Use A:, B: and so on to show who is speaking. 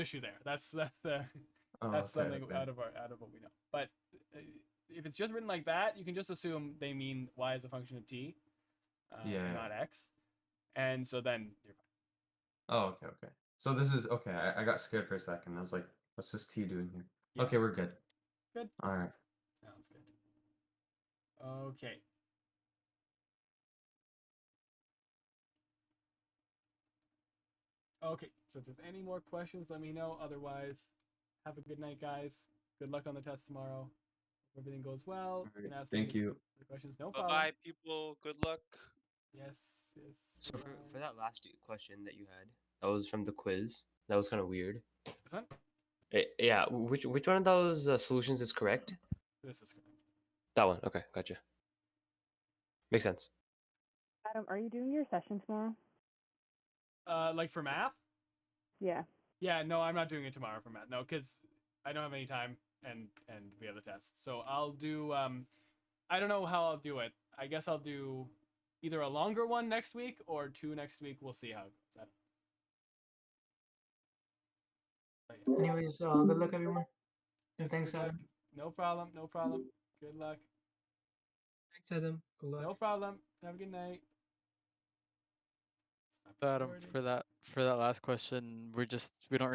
A: issue there. That's that's the
B: Oh,
A: that's
B: okay,
A: something
B: okay.
A: out of our out of what we know. But uh, if it's just written like that, you can just assume they mean y is a function of t, uh, and
B: Yeah.
A: not x, and so then you're fine.
B: Oh, okay, okay. So this is okay. I, I got scared for a second. I was like, "What's this T doing here?"
A: Yeah.
B: Okay, we're good.
A: Good.
B: All right.
A: Sounds good. Okay. Okay, so if there's any more questions, let me know. Otherwise, have a good night, guys. Good luck on the test tomorrow. Hope everything goes well.
B: All
A: You
B: right.
A: can ask me
B: Thank you.
A: the questions. No
C: Bye
A: problem.
C: bye, people. Good luck.
A: Yes, yes.
D: So for, for
A: bye-bye.
D: that last question that you had, that was from the quiz. That was kind of weird.
A: This one?
D: Eh, yeah, wh- which which one of those uh, solutions is correct?
A: This is correct.
D: That one. Okay, gotcha. Makes sense.
E: Adam, are you doing your session tomorrow?
A: Uh, like for math?
E: Yeah.
A: Yeah, no, I'm not doing it tomorrow for math. No, because I don't have any time, and and we have the test. So I'll do. Um, I don't know how I'll do it. I guess I'll do either a longer one next week or two next week. We'll see how it goes. I don't know. But yeah.
F: Anyways, uh, good luck, everyone. And
A: Yes,
F: thanks,
A: good luck.
F: Adam.
A: No problem. No problem. Good luck.
F: Thanks, Adam. Good luck.
A: No problem. Have a good night. Stop
G: Adam,
A: recording.
G: for that for that last question, we're just we don't